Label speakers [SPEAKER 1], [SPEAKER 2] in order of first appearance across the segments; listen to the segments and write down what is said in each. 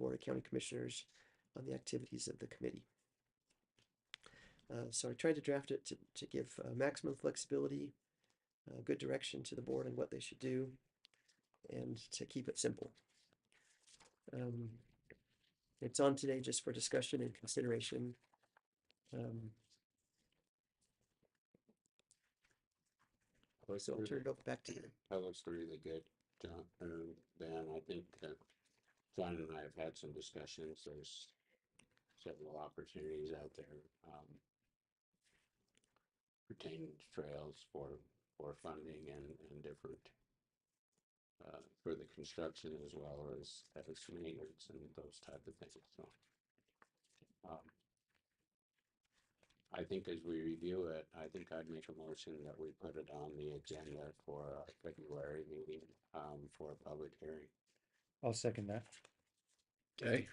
[SPEAKER 1] Florida County Commissioners on the activities of the committee. Uh, so I tried to draft it to, to give uh, maximum flexibility, uh, good direction to the board and what they should do, and to keep it simple. Um, it's on today just for discussion and consideration. Um,
[SPEAKER 2] Those
[SPEAKER 1] so I'll
[SPEAKER 2] three-
[SPEAKER 1] turn it over back to you.
[SPEAKER 2] That looks really good, John, and Dan, I think that John and I have had some discussions, there's several opportunities out there, um, pertaining to trails for, for funding and, and different uh, for the construction as well as, as maintenance and those type of things, so. um, I think as we review it, I think I'd make a motion that we put it on the agenda for our February meeting, um, for a public hearing.
[SPEAKER 3] I'll second that.
[SPEAKER 4] Okay,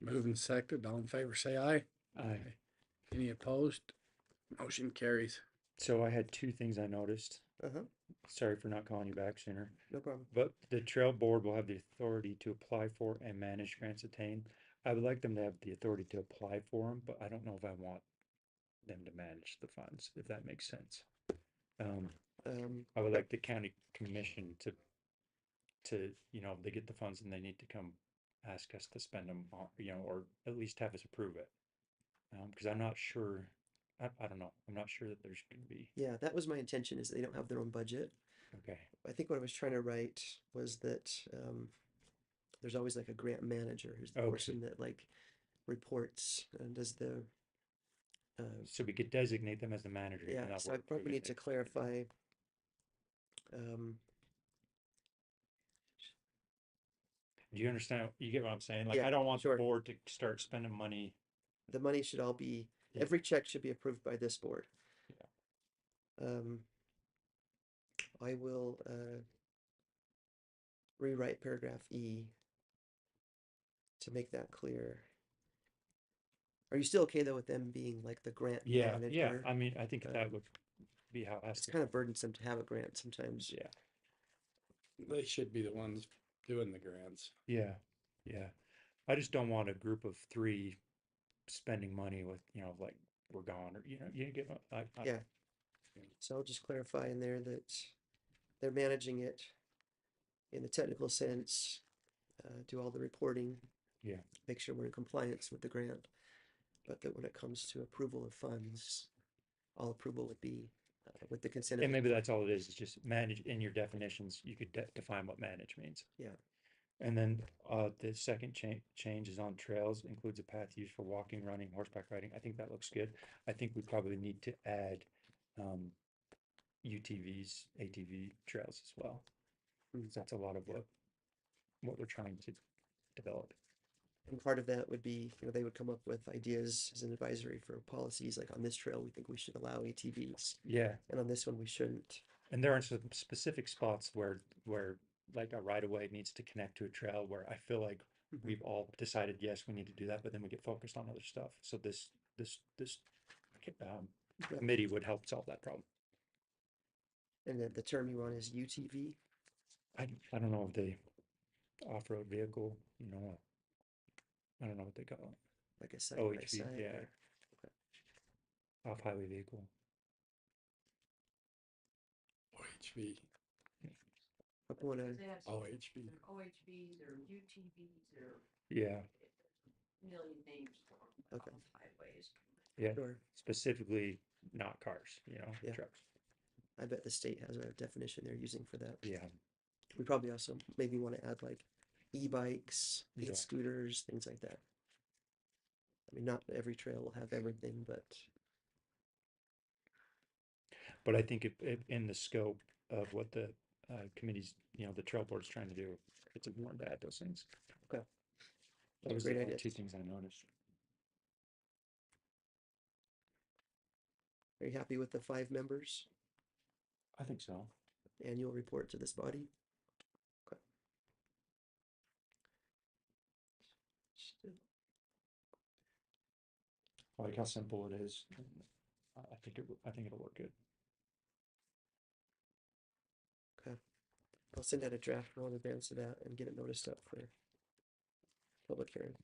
[SPEAKER 4] moving second, all in favor, say aye.
[SPEAKER 3] I,
[SPEAKER 4] Any opposed? Motion carries.
[SPEAKER 3] so I had two things I noticed.
[SPEAKER 1] Uh-huh,
[SPEAKER 3] Sorry for not calling you back sooner.
[SPEAKER 1] no problem.
[SPEAKER 3] But the trail board will have the authority to apply for and manage grants attained. I would like them to have the authority to apply for them, but I don't know if I want them to manage the funds, if that makes sense. Um,
[SPEAKER 1] Um,
[SPEAKER 3] I would like the county commission to, to, you know, they get the funds and they need to come ask us to spend them, you know, or at least have us approve it. Um, cause I'm not sure, I, I don't know, I'm not sure that there's gonna be,
[SPEAKER 1] yeah, that was my intention is they don't have their own budget.
[SPEAKER 3] okay,
[SPEAKER 1] I think what I was trying to write was that um, there's always like a grant manager who's the
[SPEAKER 3] Okay.
[SPEAKER 1] person that like reports and does the. Uh,
[SPEAKER 3] so we could designate them as the manager. even
[SPEAKER 1] yeah,
[SPEAKER 3] though
[SPEAKER 1] so I
[SPEAKER 3] we're
[SPEAKER 1] probably
[SPEAKER 3] approving
[SPEAKER 1] need to
[SPEAKER 3] it.
[SPEAKER 1] clarify. Um,
[SPEAKER 3] Do you understand? You get what I'm saying? Like,
[SPEAKER 1] Yeah,
[SPEAKER 3] I don't want the
[SPEAKER 1] sure.
[SPEAKER 3] board to start spending money.
[SPEAKER 1] the money should all be,
[SPEAKER 3] Yeah.
[SPEAKER 1] every check should be approved by this board. Um, I will uh, rewrite paragraph E to make that clear. Are you still okay though with them being like the grant
[SPEAKER 3] Yeah, yeah.
[SPEAKER 1] manager?
[SPEAKER 3] I mean, I think
[SPEAKER 1] um,
[SPEAKER 3] that would be how it has
[SPEAKER 1] It's
[SPEAKER 3] to
[SPEAKER 1] kind of burdensome to have a grant sometimes.
[SPEAKER 3] Yeah,
[SPEAKER 4] They should be the ones doing the grants.
[SPEAKER 3] yeah, yeah. I just don't want a group of three spending money with, you know, like, we're gone, or, you know, you get, what- I, I,
[SPEAKER 1] Yeah. So I'll just clarify in there that they're managing it in the technical sense, uh, do all the reporting.
[SPEAKER 3] Yeah.
[SPEAKER 1] Make sure we're in compliance with the grant, but that when it comes to approval of funds, all approval would be uh, with the consent. of
[SPEAKER 3] and
[SPEAKER 1] the-
[SPEAKER 3] maybe that's all it is, is just manage in your definitions, you could de- define what manage means.
[SPEAKER 1] Yeah.
[SPEAKER 3] And then, uh, the second change, change is on trails, includes a path used for walking, running, horseback riding. I think that looks good. I think we probably need to add, um, UTVs, ATV trails as well.
[SPEAKER 1] Mm.
[SPEAKER 3] 'cause That's a lot of
[SPEAKER 1] Yeah.
[SPEAKER 3] what, what we're trying to develop.
[SPEAKER 1] And part of that would be, you know, they would come up with ideas as an advisory for policies, like on this trail, we think we should allow ATVs,
[SPEAKER 3] Yeah.
[SPEAKER 1] and on this one, we shouldn't.
[SPEAKER 3] And there are some specific spots where, where like a right of way needs to connect to a trail where I feel like
[SPEAKER 1] Mhm.
[SPEAKER 3] we've all decided, yes, we need to do that, but then we get focused on other stuff. So this, this, this um, committee would help solve that problem.
[SPEAKER 1] And then the term you want is UTV.
[SPEAKER 3] I, I don't know if they off-road vehicle, you know, I don't know what they call it.
[SPEAKER 1] like a side by
[SPEAKER 3] OHV,
[SPEAKER 1] side.
[SPEAKER 3] yeah.
[SPEAKER 1] or-
[SPEAKER 3] Off-highway vehicle.
[SPEAKER 4] OHV,
[SPEAKER 1] I wanna,
[SPEAKER 5] They have some-
[SPEAKER 4] OHV.
[SPEAKER 5] they're OHVs or UTVs or
[SPEAKER 3] Yeah,
[SPEAKER 5] a million names for 'em
[SPEAKER 1] Okay.
[SPEAKER 5] on highways.
[SPEAKER 3] yeah,
[SPEAKER 1] sure,
[SPEAKER 3] specifically not cars, you know,
[SPEAKER 1] Yeah.
[SPEAKER 3] trucks.
[SPEAKER 1] I bet the state has a definition they're using for that.
[SPEAKER 3] Yeah,
[SPEAKER 1] We probably also maybe wanna add like e-bikes,
[SPEAKER 3] Yeah.
[SPEAKER 1] e-scooters, things like that. I mean, not every trail will have everything, but
[SPEAKER 3] but I think if, if in the scope of what the uh, committee's, you know, the trail board's trying to do, it's important to add those things.
[SPEAKER 1] Okay.
[SPEAKER 3] Those are
[SPEAKER 1] Great
[SPEAKER 3] the only
[SPEAKER 1] ideas.
[SPEAKER 3] two things I noticed.
[SPEAKER 1] are you happy with the five members?
[SPEAKER 3] I think so.
[SPEAKER 1] Annual report to this body? Okay.
[SPEAKER 3] I like how simple it is. and I I think it, w- I think it'll work good.
[SPEAKER 1] I'll send out a draft well in advance of that and get it noticed up for public hearing.